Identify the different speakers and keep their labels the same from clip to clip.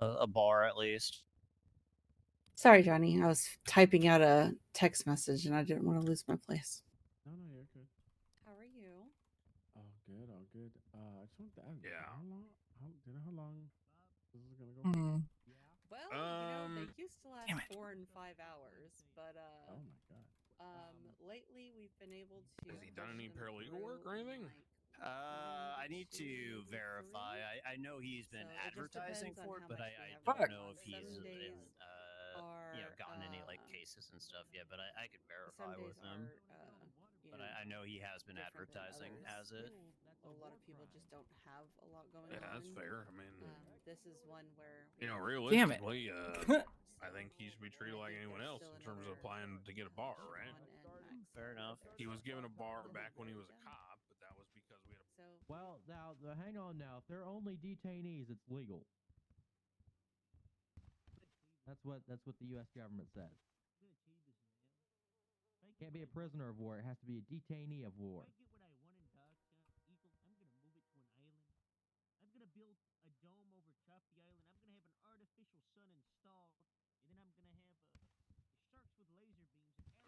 Speaker 1: a, a bar at least.
Speaker 2: Sorry, Johnny. I was typing out a text message and I didn't want to lose my place.
Speaker 3: No, no, you're good.
Speaker 2: How are you?
Speaker 3: All good, all good. Uh, I just wanted to ask,
Speaker 4: Yeah.
Speaker 3: how long? How, do you know how long this is gonna go?
Speaker 1: Mm-hmm.
Speaker 5: Mm.
Speaker 2: Well, you know,
Speaker 4: Um,
Speaker 2: they used to last
Speaker 1: damn it.
Speaker 2: four and five hours, but uh,
Speaker 3: Oh my god.
Speaker 2: um, lately we've been able to.
Speaker 4: Has he done
Speaker 2: push
Speaker 4: any
Speaker 2: them
Speaker 4: paralegal
Speaker 2: through
Speaker 4: work or
Speaker 2: in,
Speaker 4: anything?
Speaker 2: like,
Speaker 1: Uh, I
Speaker 2: one,
Speaker 1: need to
Speaker 2: two,
Speaker 1: verify.
Speaker 2: three.
Speaker 1: I, I know he's been
Speaker 2: So it just
Speaker 1: advertising
Speaker 2: depends on
Speaker 1: for it,
Speaker 2: how
Speaker 1: but I,
Speaker 2: much we
Speaker 1: I
Speaker 2: have
Speaker 1: don't
Speaker 5: left.
Speaker 1: know if
Speaker 2: Some
Speaker 1: he's uh,
Speaker 2: days
Speaker 1: uh, you know,
Speaker 2: are,
Speaker 1: gotten any like
Speaker 2: uh,
Speaker 1: cases and stuff yet. But I, I could
Speaker 2: Some
Speaker 1: verify
Speaker 2: days
Speaker 1: with him.
Speaker 2: are, uh, you
Speaker 1: But
Speaker 2: know,
Speaker 1: I, I know he has been
Speaker 2: different than
Speaker 1: advertising as
Speaker 2: others.
Speaker 1: it.
Speaker 2: a lot of people just don't have a lot going
Speaker 4: Yeah,
Speaker 2: on.
Speaker 4: that's fair. I mean,
Speaker 2: Um, this is one where
Speaker 4: you know,
Speaker 5: Damn it.
Speaker 4: realistically, uh, I think he should be treated like anyone else in terms of applying to get a bar, right?
Speaker 1: Fair enough.
Speaker 4: He was given a bar back when he was a cop, but that was because we had a.
Speaker 2: So
Speaker 6: Well, now, the, hang on now. If they're only detainees, it's legal. That's what that's what the U.S. government says. Can't be a prisoner of war. It has to be a detainee of war.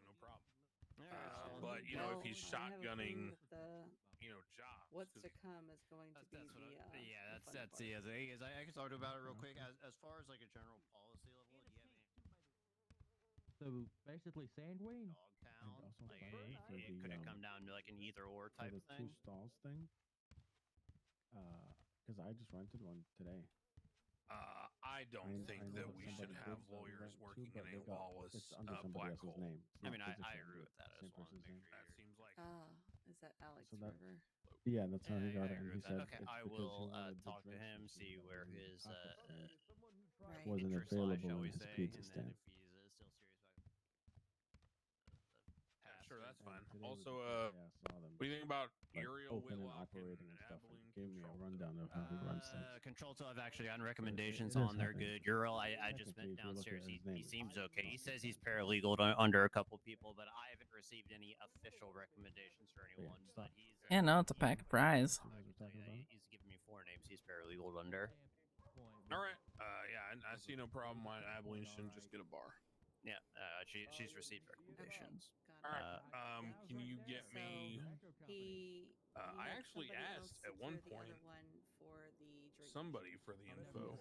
Speaker 4: No problem.
Speaker 2: Um,
Speaker 1: Alright,
Speaker 4: Uh,
Speaker 1: so-
Speaker 4: but you know, if
Speaker 2: well,
Speaker 4: he's
Speaker 2: I have a feeling
Speaker 4: shotgunning,
Speaker 2: that the
Speaker 4: you know, jobs.
Speaker 2: what's
Speaker 4: 'cause
Speaker 2: to
Speaker 4: he-
Speaker 2: come is going to
Speaker 1: That's,
Speaker 2: be
Speaker 1: that's what I,
Speaker 2: the, uh,
Speaker 1: yeah,
Speaker 2: the
Speaker 1: that's
Speaker 2: fun
Speaker 1: that's
Speaker 2: part. Uh-huh.
Speaker 1: the other thing is I, I can talk about it real
Speaker 6: Okay.
Speaker 1: quick. As, as far as like a general policy level, do you have any
Speaker 6: So basically, Sandwing.
Speaker 1: dogtown?
Speaker 3: also
Speaker 1: Like,
Speaker 3: find
Speaker 1: it,
Speaker 3: for
Speaker 1: it
Speaker 3: the,
Speaker 1: could it
Speaker 3: um,
Speaker 1: come down to like an either or
Speaker 3: So
Speaker 1: type
Speaker 3: the
Speaker 1: of
Speaker 3: two
Speaker 1: thing?
Speaker 3: stalls thing. Uh, because I just rented one today.
Speaker 4: Uh, I
Speaker 3: I,
Speaker 4: don't
Speaker 3: kn- I
Speaker 4: think
Speaker 3: know
Speaker 4: that
Speaker 3: that
Speaker 4: we
Speaker 3: somebody
Speaker 4: should
Speaker 3: did
Speaker 4: have
Speaker 3: something
Speaker 4: lawyers
Speaker 3: right too,
Speaker 4: working
Speaker 3: but they
Speaker 4: in a
Speaker 3: got-
Speaker 4: lawless
Speaker 3: it's under
Speaker 4: uh,
Speaker 3: somebody
Speaker 4: black
Speaker 3: else's
Speaker 4: hole.
Speaker 3: Name.
Speaker 1: I
Speaker 3: It's not
Speaker 1: mean, I,
Speaker 3: his
Speaker 1: I
Speaker 3: name,
Speaker 1: agree with that. I
Speaker 3: same
Speaker 1: just wanted to
Speaker 3: person's
Speaker 1: make
Speaker 3: name.
Speaker 1: sure.
Speaker 4: That
Speaker 1: you're-
Speaker 4: seems like
Speaker 2: Ah, is that Alex
Speaker 3: that-
Speaker 2: River?
Speaker 3: Yeah, that's how
Speaker 1: Yeah,
Speaker 3: he
Speaker 1: I- I
Speaker 3: got it.
Speaker 1: agree
Speaker 3: and He
Speaker 1: with that.
Speaker 3: said
Speaker 1: Okay,
Speaker 3: it's
Speaker 1: I
Speaker 3: because he
Speaker 1: will, uh,
Speaker 3: wanted the
Speaker 1: talk to
Speaker 3: drinks
Speaker 1: him,
Speaker 3: and shit
Speaker 1: see
Speaker 3: that
Speaker 1: where
Speaker 3: were in
Speaker 1: his,
Speaker 3: pockets
Speaker 1: uh,
Speaker 3: and-
Speaker 2: Right.
Speaker 3: wasn't
Speaker 1: interest lie,
Speaker 3: available
Speaker 1: shall
Speaker 3: in
Speaker 1: we
Speaker 3: his
Speaker 1: say,
Speaker 3: pizza
Speaker 1: and then
Speaker 3: stand.
Speaker 1: if he's uh, still serious about
Speaker 4: Yeah,
Speaker 1: Pass
Speaker 4: sure,
Speaker 1: through.
Speaker 4: that's
Speaker 3: and
Speaker 4: fine.
Speaker 3: today was
Speaker 4: Also,
Speaker 3: the
Speaker 4: uh,
Speaker 3: first day I saw them,
Speaker 4: what do you think about
Speaker 3: like,
Speaker 4: Uriel
Speaker 3: open and
Speaker 4: Whitlock and,
Speaker 3: operating and stuff. and
Speaker 4: Abilene
Speaker 3: he gave me a
Speaker 4: Control?
Speaker 3: rundown of how he runs
Speaker 1: Uh,
Speaker 3: things.
Speaker 1: control till I've actually gotten recommendations
Speaker 3: recommendations it is
Speaker 1: on. They're
Speaker 3: happening.
Speaker 1: good. Ural, I, I just went
Speaker 3: Technically, if you look at
Speaker 1: downstairs.
Speaker 3: his
Speaker 1: He,
Speaker 3: name,
Speaker 1: he
Speaker 3: it's
Speaker 1: seems
Speaker 3: not
Speaker 1: okay. He
Speaker 3: his
Speaker 1: says
Speaker 3: name.
Speaker 1: he's paralegal to, under a couple people, but I haven't received any official recommendations for anyone. But he's
Speaker 5: Yeah, no, it's a pack of prize.
Speaker 1: I can
Speaker 3: We're
Speaker 1: tell you
Speaker 3: talking
Speaker 1: that
Speaker 3: about
Speaker 1: he-
Speaker 3: it?
Speaker 1: He's given me four names. He's paralegal under.
Speaker 4: All right. Uh, yeah, and I see no problem why Abilene shouldn't just get a bar.
Speaker 1: Yeah, uh, she, she's received recommendations.
Speaker 2: Got
Speaker 4: All
Speaker 2: it.
Speaker 4: right. um, can you get
Speaker 2: So,
Speaker 4: me?
Speaker 2: He.
Speaker 4: Uh,
Speaker 2: he
Speaker 4: I
Speaker 2: had
Speaker 4: actually
Speaker 2: somebody
Speaker 4: asked
Speaker 2: else
Speaker 4: at one
Speaker 2: secure the other
Speaker 4: point
Speaker 2: one for the drink.
Speaker 4: Somebody for
Speaker 6: Oh,
Speaker 4: the info.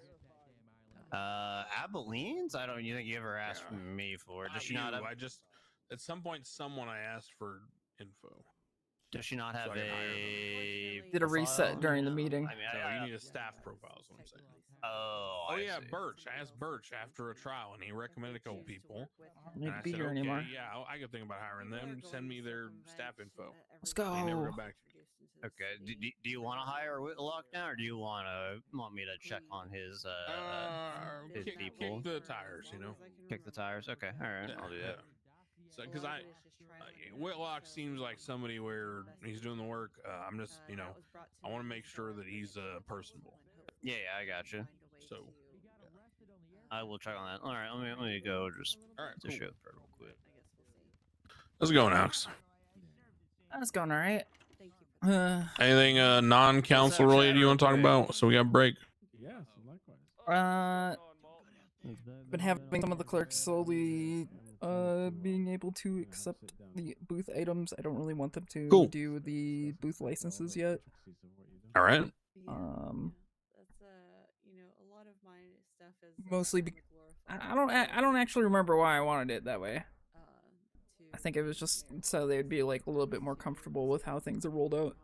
Speaker 1: Uh, Abilene's? I don't. You think you ever asked
Speaker 4: Yeah.
Speaker 1: me for? it.
Speaker 4: Not
Speaker 1: Does she not?
Speaker 4: you,
Speaker 1: Have,
Speaker 4: I just at some point someone I asked for info.
Speaker 1: does she not
Speaker 4: so
Speaker 1: have
Speaker 4: I can hire them.
Speaker 1: a?
Speaker 2: Unfortunately,
Speaker 5: Did a
Speaker 1: profile?
Speaker 5: reset during the
Speaker 1: No.
Speaker 5: meeting.
Speaker 1: I mean,
Speaker 4: So
Speaker 1: I, I,
Speaker 4: you need a staff profile. Is what I'm saying.
Speaker 1: Oh,
Speaker 4: Oh
Speaker 1: I
Speaker 4: yeah,
Speaker 1: see.
Speaker 4: Birch. I asked Birch after a trial, and he recommended a couple people.
Speaker 5: Need
Speaker 4: and
Speaker 5: to
Speaker 4: I
Speaker 5: be
Speaker 4: said,
Speaker 5: here
Speaker 4: okay,
Speaker 5: anymore.
Speaker 4: Yeah, I'll- I could think about hiring them. Send me their staff info.
Speaker 5: Let's
Speaker 4: They never
Speaker 5: Oh.
Speaker 4: got back to me.
Speaker 1: Okay. Do, do, do you want to hire Whitlock now, or do you want to want me to check on his? Uh,
Speaker 4: Uh,
Speaker 1: his
Speaker 4: kick, kick
Speaker 1: people.
Speaker 4: the tires, you know.
Speaker 1: kick the tires. Okay. All right. I'll do that.
Speaker 4: So, 'cause I- Uh, Whitlock seems like somebody where he's doing the work. Uh, I'm just, you know, I wanna make sure that he's, uh, personable.
Speaker 1: Yeah, yeah, I gotcha.
Speaker 4: So-
Speaker 1: I will check on that. All right. Let me let me go just
Speaker 4: All right,
Speaker 1: to
Speaker 4: cool.
Speaker 1: show up real quick.
Speaker 4: how's it going, Alex?
Speaker 5: That's going all right.
Speaker 2: Thank you. for that.
Speaker 5: Uh,
Speaker 4: Anything uh, non-council related you want to talk about? So we got a break.
Speaker 3: Yeah, so likewise.
Speaker 5: uh, been having some of the clerks slowly uh being able to accept the booth items. I don't really want them to
Speaker 4: Cool.
Speaker 5: do the booth licenses yet.
Speaker 4: All right.
Speaker 2: Yeah,
Speaker 5: Um,
Speaker 2: yeah. that's uh, you know, a lot of my stuff is uh,
Speaker 5: Mostly
Speaker 2: kinda
Speaker 5: I I
Speaker 2: glorified
Speaker 5: don't. I I don't actually remember why I wanted it that way.
Speaker 2: uh, to
Speaker 5: I think it was just so they'd be like a little bit more comfortable with how things are rolled out.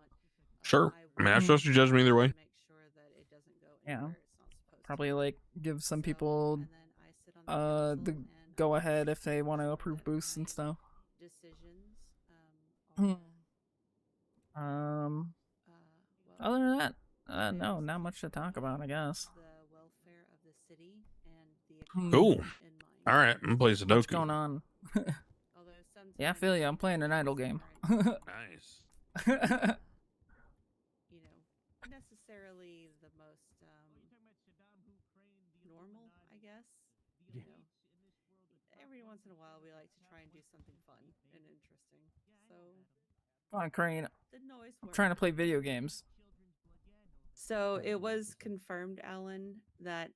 Speaker 4: Sure. I mean, I trust your judgment either way.
Speaker 2: Make sure that it doesn't go
Speaker 5: Yeah.
Speaker 2: anywhere it's not supposed to.
Speaker 5: Probably like give some
Speaker 2: So,
Speaker 5: people
Speaker 2: and then I sit on
Speaker 5: uh
Speaker 2: council
Speaker 5: the
Speaker 2: and I
Speaker 5: go
Speaker 2: make
Speaker 5: ahead if they
Speaker 2: sure
Speaker 5: want to
Speaker 2: that
Speaker 5: approve booths and
Speaker 2: my
Speaker 5: stuff.
Speaker 2: Decisions. Um, are,
Speaker 5: Hmm. Um.
Speaker 2: uh, well,
Speaker 5: Other than that, uh, no,
Speaker 2: there's
Speaker 5: not much to talk about. I guess.
Speaker 2: The welfare of the city and the
Speaker 5: Hmm.
Speaker 4: Cool.
Speaker 2: economy in mind.
Speaker 4: All right, I'm gonna play Sudoku.
Speaker 5: What's going on?
Speaker 2: Although
Speaker 5: Yeah, I feel
Speaker 2: sometimes
Speaker 5: you. I'm playing an idle game.
Speaker 2: aren't,
Speaker 4: Nice.
Speaker 2: you know, necessarily the most um, normal, I guess.
Speaker 3: Yeah.
Speaker 2: You know, every once in a while, we like to try and do something fun and interesting. So
Speaker 5: Come on, Crane.
Speaker 2: the noise.
Speaker 5: I'm
Speaker 2: worked.
Speaker 5: trying to play video games.
Speaker 2: So it was confirmed, Alan, that